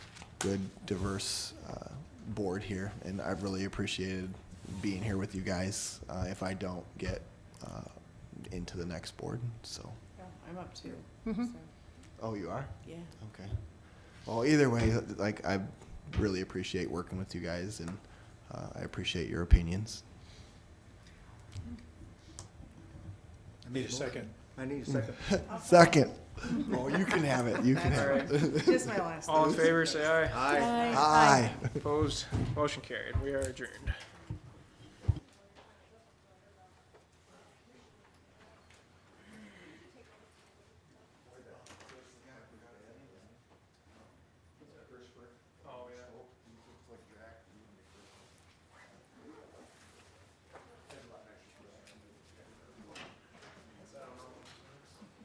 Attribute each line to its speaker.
Speaker 1: good, diverse uh, board here, and I've really appreciated being here with you guys uh, if I don't get uh, into the next board, so.
Speaker 2: Yeah, I'm up too.
Speaker 3: Mhm.
Speaker 2: so,
Speaker 1: Oh, you are?
Speaker 2: Yeah.
Speaker 1: Okay. Well, either way, like, I really appreciate working with you guys, and uh, I appreciate your opinions.
Speaker 4: Need a second.
Speaker 5: I need a second.
Speaker 1: Second. Oh, you can have it, you can have it.
Speaker 2: Just my last.
Speaker 4: All in favor, say aye.
Speaker 5: Aye.
Speaker 1: Aye.
Speaker 4: Opposed, motion carried. We are adjourned.